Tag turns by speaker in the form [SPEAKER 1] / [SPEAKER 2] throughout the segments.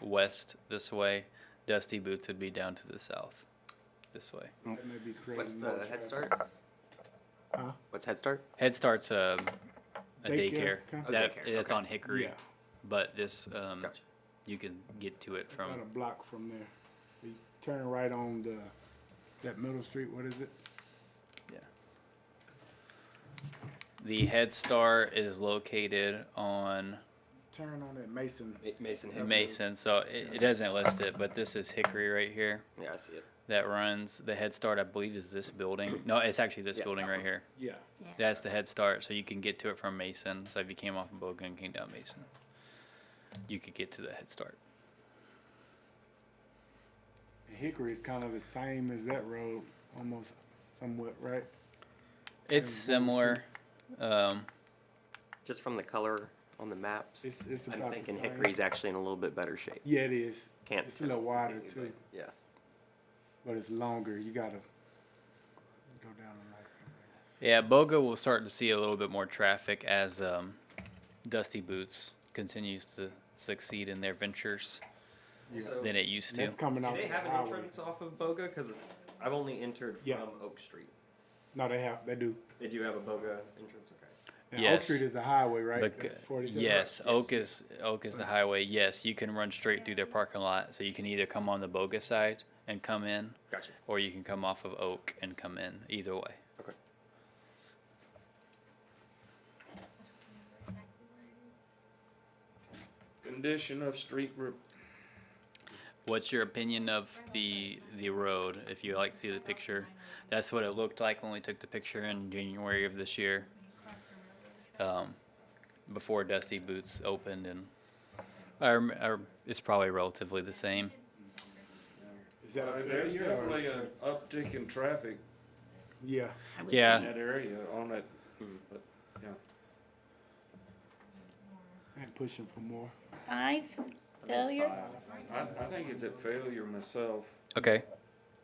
[SPEAKER 1] west this way. Dusty Boots would be down to the south this way.
[SPEAKER 2] That may be creating
[SPEAKER 3] What's
[SPEAKER 2] more
[SPEAKER 3] the Head
[SPEAKER 2] traffic.
[SPEAKER 3] Start?
[SPEAKER 2] Huh?
[SPEAKER 3] What's Head Start?
[SPEAKER 1] Head Start's a, a daycare.
[SPEAKER 2] Daycare, okay.
[SPEAKER 3] A
[SPEAKER 1] That,
[SPEAKER 3] daycare,
[SPEAKER 1] it's
[SPEAKER 3] okay.
[SPEAKER 1] on Hickory,
[SPEAKER 2] Yeah.
[SPEAKER 1] but this um,
[SPEAKER 3] Gotcha.
[SPEAKER 1] you can get to it
[SPEAKER 2] About a
[SPEAKER 1] from
[SPEAKER 2] block from there. So you turn right on the, that middle street, what is it?
[SPEAKER 1] the Head Start is located on
[SPEAKER 2] Turn on that Mason.
[SPEAKER 3] Mason Hill.
[SPEAKER 1] Mason, so it, it doesn't list it, but this is Hickory right here
[SPEAKER 3] Yeah, I see it.
[SPEAKER 1] that runs the Head Start. I believe is this building. No, it's actually this
[SPEAKER 3] Yeah,
[SPEAKER 1] building
[SPEAKER 3] that
[SPEAKER 1] right
[SPEAKER 3] one.
[SPEAKER 1] here.
[SPEAKER 2] Yeah.
[SPEAKER 1] That's the Head Start, so you can get to it from Mason. So if you came off of Bogan and came down Mason, you could get to the Head Start.
[SPEAKER 2] And Hickory is kind of the same as that road, almost somewhat, right?
[SPEAKER 1] It's
[SPEAKER 2] Same as Bogan
[SPEAKER 1] similar. Um,
[SPEAKER 3] Just from the color on the maps,
[SPEAKER 2] It's, it's
[SPEAKER 3] I'm
[SPEAKER 2] about the
[SPEAKER 3] thinking
[SPEAKER 2] same.
[SPEAKER 3] Hickory's actually in a little bit better shape.
[SPEAKER 2] Yeah, it is.
[SPEAKER 3] Can't.
[SPEAKER 2] It's a little wider too,
[SPEAKER 3] Yeah.
[SPEAKER 2] but it's longer. You gotta go down the right.
[SPEAKER 1] Yeah, Boga will start to see a little bit more traffic as um, Dusty Boots continues to succeed in their ventures
[SPEAKER 2] Yeah.
[SPEAKER 1] than it used
[SPEAKER 2] And
[SPEAKER 1] to.
[SPEAKER 2] That's coming
[SPEAKER 3] Do
[SPEAKER 2] off
[SPEAKER 3] they
[SPEAKER 2] the
[SPEAKER 3] have an
[SPEAKER 2] highway.
[SPEAKER 3] entrance off of Boga? Because I've only entered
[SPEAKER 2] Yeah.
[SPEAKER 3] from Oak Street.
[SPEAKER 2] No, they have, they do.
[SPEAKER 3] They do have a Boga entrance, okay.
[SPEAKER 2] And Oak
[SPEAKER 1] Yes.
[SPEAKER 2] Street is the highway, right?
[SPEAKER 1] But,
[SPEAKER 2] That's
[SPEAKER 1] uh,
[SPEAKER 2] 47.
[SPEAKER 1] yes,
[SPEAKER 3] Yes.
[SPEAKER 1] Oak is Oak is the highway. Yes, you can run straight through their parking lot, so you can either come on the Boga side and come in,
[SPEAKER 3] Gotcha.
[SPEAKER 1] or you can come off of Oak and come in. Either way.
[SPEAKER 3] Okay.
[SPEAKER 4] Condition of street re-
[SPEAKER 1] What's your opinion of the the road? If you like to see the picture, that's what it looked like when we took the picture in January of this year, um, before Dusty Boots opened, and I rem- I rem- it's probably relatively the same.
[SPEAKER 2] Is that up there?
[SPEAKER 4] there's
[SPEAKER 2] Yeah, or-
[SPEAKER 4] definitely an uptick in traffic
[SPEAKER 2] Yeah.
[SPEAKER 1] Yeah.
[SPEAKER 4] in that area on that, but, yeah.
[SPEAKER 2] And pushing for more.
[SPEAKER 5] Five failure?
[SPEAKER 4] I, I think it's a failure myself.
[SPEAKER 1] Okay.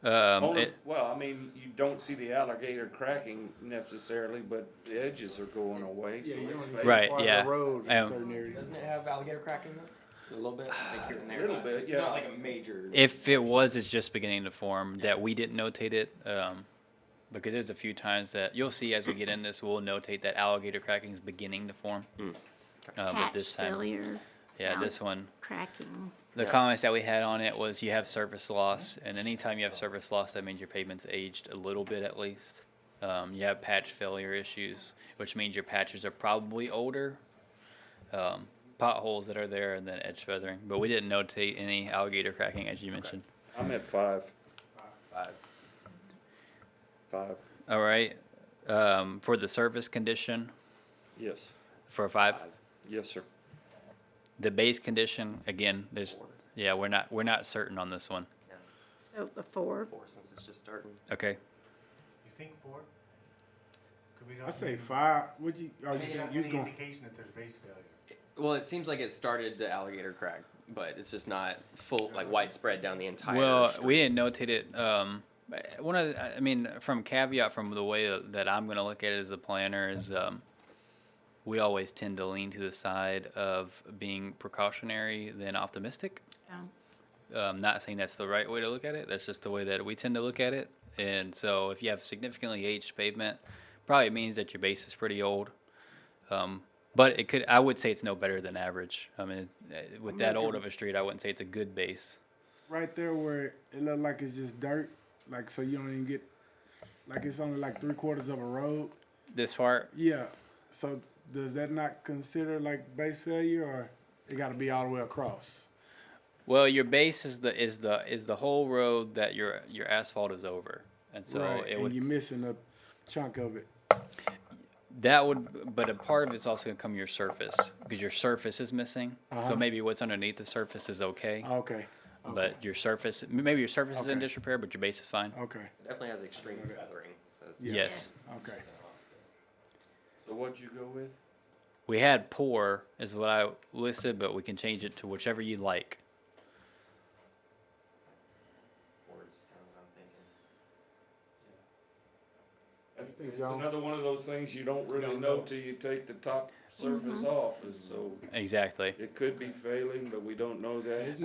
[SPEAKER 1] Um,
[SPEAKER 4] Only,
[SPEAKER 1] it-
[SPEAKER 4] well, I mean, you don't see the alligator cracking necessarily, but the edges are going away, so
[SPEAKER 2] Yeah, you don't
[SPEAKER 4] it's
[SPEAKER 2] even
[SPEAKER 4] failure.
[SPEAKER 2] see
[SPEAKER 1] Right,
[SPEAKER 2] part of
[SPEAKER 1] yeah.
[SPEAKER 2] The road in
[SPEAKER 1] Um,
[SPEAKER 2] certain areas.
[SPEAKER 3] it have alligator cracking though? A little bit, like here and
[SPEAKER 4] there, Little not- bit, yeah. not like
[SPEAKER 3] a major.
[SPEAKER 1] if it was, it's just beginning to form that we didn't notate it. Um, because there's a few times that you'll see as we get in this, we'll notate that alligator cracking is beginning to form. Uh, but
[SPEAKER 5] Patch
[SPEAKER 1] this time,
[SPEAKER 5] failure,
[SPEAKER 1] yeah,
[SPEAKER 5] now.
[SPEAKER 1] this one.
[SPEAKER 5] cracking.
[SPEAKER 1] The
[SPEAKER 3] Yeah.
[SPEAKER 1] comments that we had on it was you have surface loss, and anytime you have surface loss, that means your pavement's aged a little bit at least. Um, you have patch failure issues, which means your patches are probably older. Um, potholes that are there, and then edge feathering. But we didn't notate any alligator cracking, as you mentioned.
[SPEAKER 4] I'm at five,
[SPEAKER 3] Five.
[SPEAKER 4] five,
[SPEAKER 1] All right. Um, for the surface condition,
[SPEAKER 4] yes,
[SPEAKER 1] for five,
[SPEAKER 3] Five.
[SPEAKER 4] yes, sir.
[SPEAKER 1] the base condition again. There's
[SPEAKER 3] Four.
[SPEAKER 1] yeah, we're not we're not certain on this one.
[SPEAKER 5] So a four.
[SPEAKER 3] Four, since it's just starting.
[SPEAKER 1] Okay.
[SPEAKER 6] You think four? Could we
[SPEAKER 2] I
[SPEAKER 6] not
[SPEAKER 2] say
[SPEAKER 6] have
[SPEAKER 2] five. Would you? Are you
[SPEAKER 6] any-
[SPEAKER 2] think
[SPEAKER 6] any
[SPEAKER 2] you was going?
[SPEAKER 6] indication that there's base failure?
[SPEAKER 3] Well, it seems like it started the alligator crack, but it's just not full, like widespread down the entire.
[SPEAKER 1] Uh-huh. Well,
[SPEAKER 3] street.
[SPEAKER 1] we didn't notate it. Um, I- one of, the- I mean, from caveat from the way that I'm going to look at it as a planner is, um, we always tend to lean to the side of being precautionary than optimistic.
[SPEAKER 5] Yeah.
[SPEAKER 1] Um, not saying that's the right way to look at it. That's just the way that we tend to look at it. And so, if you have significantly aged pavement, probably means that your base is pretty old. Um, but it could, I would say it's no better than average. I mean, eh, with that old of a street, I wouldn't say it's a good base.
[SPEAKER 2] Right there where it looked like it's just dirt, like so you don't even get, like it's only like three quarters of a road.
[SPEAKER 1] This part,
[SPEAKER 2] Yeah. So does that not consider like base failure, or it got to be all the way across?
[SPEAKER 1] Well, your base is the is the is the whole road that your your asphalt is over, and so
[SPEAKER 2] right.
[SPEAKER 1] it
[SPEAKER 2] and
[SPEAKER 1] would
[SPEAKER 2] you're missing a chunk of it.
[SPEAKER 1] that would. But a part of it's also gonna come your surface because your surface is missing.
[SPEAKER 2] Uh-huh.
[SPEAKER 1] So maybe what's underneath the surface is okay,
[SPEAKER 2] Okay. Okay.
[SPEAKER 1] but your surface maybe your surface is in
[SPEAKER 2] Okay.
[SPEAKER 1] disrepair, but your base is fine.
[SPEAKER 2] okay.
[SPEAKER 3] Definitely has extreme feathering, so it's.
[SPEAKER 2] Yeah.
[SPEAKER 1] Yes,
[SPEAKER 2] Okay.
[SPEAKER 4] So what'd you go with?
[SPEAKER 1] we had poor is what I listed, but we can change it to whichever you like.
[SPEAKER 3] Four is kinda what I'm thinking.
[SPEAKER 4] It's,
[SPEAKER 2] Think
[SPEAKER 4] it's
[SPEAKER 2] y'all-
[SPEAKER 4] another one of those things you don't really
[SPEAKER 2] Don't
[SPEAKER 4] know
[SPEAKER 2] know.
[SPEAKER 4] till you take the top surface off, and so
[SPEAKER 1] Exactly.
[SPEAKER 4] it could be failing, but we don't know that.
[SPEAKER 2] It's